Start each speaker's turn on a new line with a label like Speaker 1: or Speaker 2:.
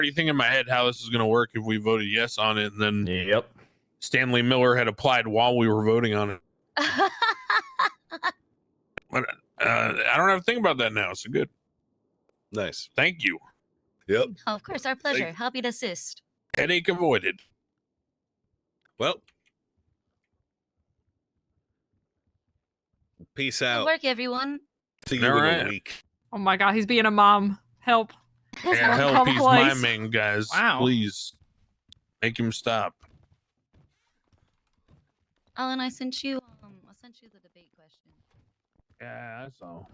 Speaker 1: already thinking in my head how this is going to work if we voted yes on it. And then
Speaker 2: Yep.
Speaker 1: Stanley Miller had applied while we were voting on it. Uh, I don't have to think about that now. So good.
Speaker 3: Nice.
Speaker 1: Thank you.
Speaker 3: Yep.
Speaker 4: of course, our pleasure. Happy to assist.
Speaker 1: Headache avoided.
Speaker 3: Well, peace
Speaker 4: Good
Speaker 3: out.
Speaker 4: work, everyone.
Speaker 3: See you in
Speaker 1: Alright.
Speaker 3: a week.
Speaker 5: Oh my god, he's being a mom. Help.
Speaker 1: Yeah,
Speaker 5: Someone
Speaker 1: help
Speaker 5: call the
Speaker 1: he's my
Speaker 5: police.
Speaker 1: man, guys.
Speaker 2: Wow.
Speaker 1: Please make him stop.
Speaker 4: Alan, I sent you. Um, I sent you the debate question.
Speaker 1: Yeah, I saw.